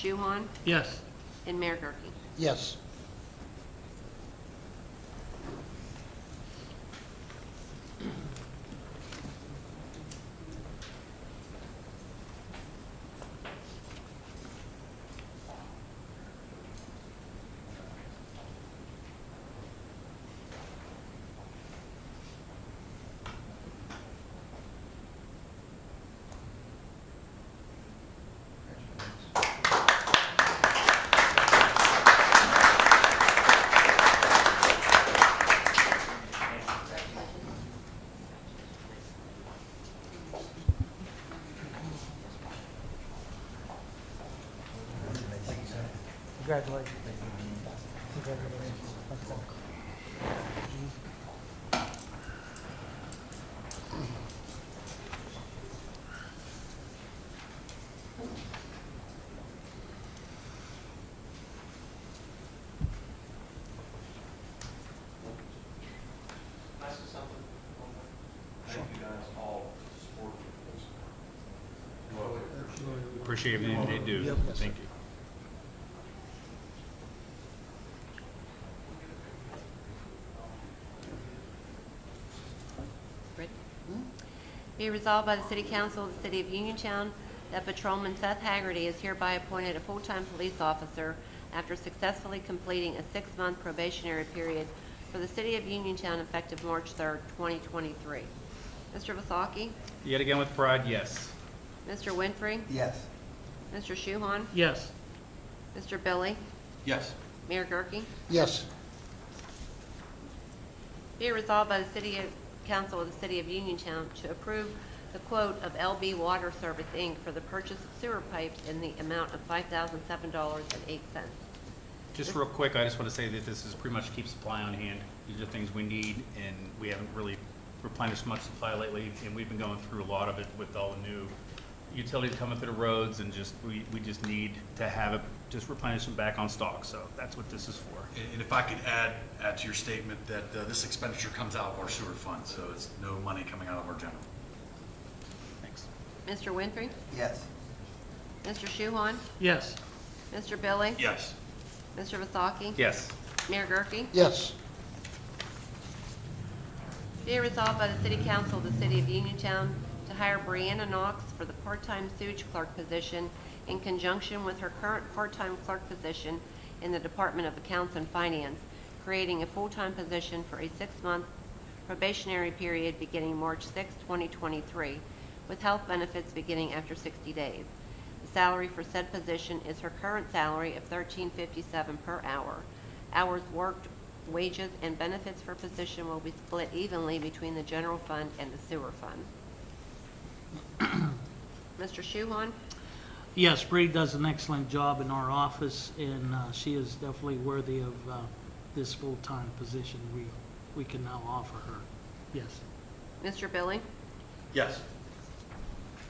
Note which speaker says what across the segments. Speaker 1: Shuhon,
Speaker 2: Yes.
Speaker 1: and Mayor Gurke.
Speaker 3: Yes. Congratulations. Congratulations.
Speaker 4: Thank you guys all for supporting this.
Speaker 5: Appreciate everything they do. Thank you.
Speaker 1: Rick? Be resolved by the City Council of the City of Uniontown that Patrolman Seth Haggerty is hereby appointed a full-time police officer after successfully completing a six-month probationary period for the City of Uniontown effective March 3rd, 2023. Mr. Vasaki?
Speaker 5: Yet again with pride, yes.
Speaker 1: Mr. Winfrey?
Speaker 3: Yes.
Speaker 1: Mr. Shuhon?
Speaker 2: Yes.
Speaker 1: Mr. Billy?
Speaker 4: Yes.
Speaker 1: Mayor Gurke?
Speaker 3: Yes.
Speaker 1: Be it resolved by the City of- Council of the City of Uniontown to approve the quote of LB Water Service, Inc. for the purchase of sewer pipes in the amount of $5,007.08.
Speaker 5: Just real quick, I just want to say that this is pretty much keep supply on hand. These are things we need, and we haven't really replenished much supply lately, and we've been going through a lot of it with all the new utilities coming through the roads, and just, we, we just need to have it, just replenish them back on stock, so that's what this is for.
Speaker 4: And and if I could add, add to your statement that uh, this expenditure comes out of our sewer fund, so it's no money coming out of our general.
Speaker 5: Thanks.
Speaker 1: Mr. Winfrey?
Speaker 3: Yes.
Speaker 1: Mr. Shuhon?
Speaker 2: Yes.
Speaker 1: Mr. Billy?
Speaker 4: Yes.
Speaker 1: Mr. Vasaki?
Speaker 5: Yes.
Speaker 1: Mayor Gurke?
Speaker 3: Yes.
Speaker 1: Be it resolved by the City Council of the City of Uniontown to hire Brianna Knox for the part-time sewage clerk position in conjunction with her current part-time clerk position in the Department of Accounts and Finance, creating a full-time position for a six-month probationary period beginning March 6, 2023, with health benefits beginning after 60 days. The salary for said position is her current salary of $13.57 per hour. Hours worked, wages, and benefits for position will be split evenly between the general fund and the sewer fund. Mr. Shuhon?
Speaker 2: Yes, Bree does an excellent job in our office, and uh, she is definitely worthy of uh, this full-time position we, we can now offer her. Yes.
Speaker 1: Mr. Billy?
Speaker 4: Yes.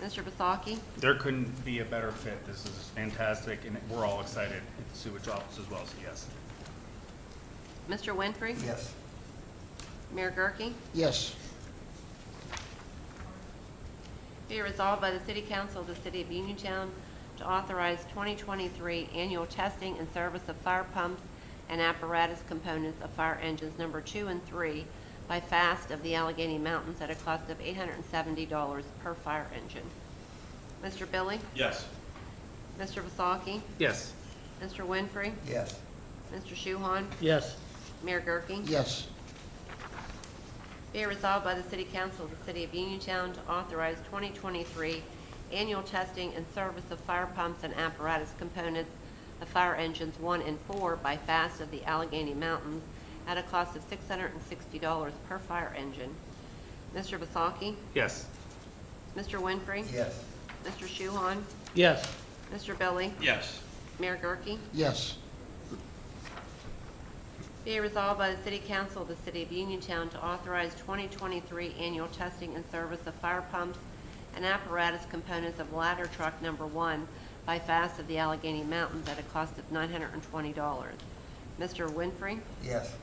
Speaker 1: Mr. Vasaki?
Speaker 5: There couldn't be a better fit. This is fantastic, and we're all excited at the sewage office as well, so yes.
Speaker 1: Mr. Winfrey?
Speaker 3: Yes.
Speaker 1: Mayor Gurke?
Speaker 3: Yes.
Speaker 1: Be it resolved by the City Council of the City of Uniontown to authorize 2023 annual testing and service of fire pumps and apparatus components of fire engines number two and three by FAST of the Allegheny Mountains at a cost of $870 per fire engine. Mr. Billy?
Speaker 4: Yes.
Speaker 1: Mr. Vasaki?
Speaker 5: Yes.
Speaker 1: Mr. Winfrey?
Speaker 3: Yes.
Speaker 1: Mr. Shuhon?
Speaker 2: Yes.
Speaker 1: Mayor Gurke?
Speaker 3: Yes.
Speaker 1: Be it resolved by the City Council of the City of Uniontown to authorize 2023 annual testing and service of fire pumps and apparatus components of fire engines 1 and 4 by FAST of the Allegheny Mountains at a cost of $660 per fire engine. Mr. Vasaki?
Speaker 5: Yes.
Speaker 1: Mr. Winfrey?
Speaker 3: Yes.
Speaker 1: Mr. Shuhon?
Speaker 2: Yes.
Speaker 1: Mr. Billy?
Speaker 4: Yes.
Speaker 1: Mayor Gurke?
Speaker 3: Yes.
Speaker 1: Be it resolved by the City Council of the City of Uniontown to authorize 2023 annual testing and service of fire pumps and apparatus components of ladder truck number one by FAST of the Allegheny Mountains at a cost of $920. Mr. Winfrey?
Speaker 3: Yes.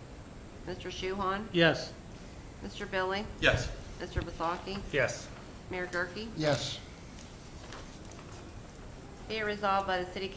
Speaker 1: Mr. Shuhon?
Speaker 2: Yes.
Speaker 1: Mr. Billy?
Speaker 4: Yes.
Speaker 1: Mr. Vasaki?
Speaker 5: Yes.
Speaker 1: Mayor Gurke?
Speaker 3: Yes.
Speaker 1: Be it resolved by the City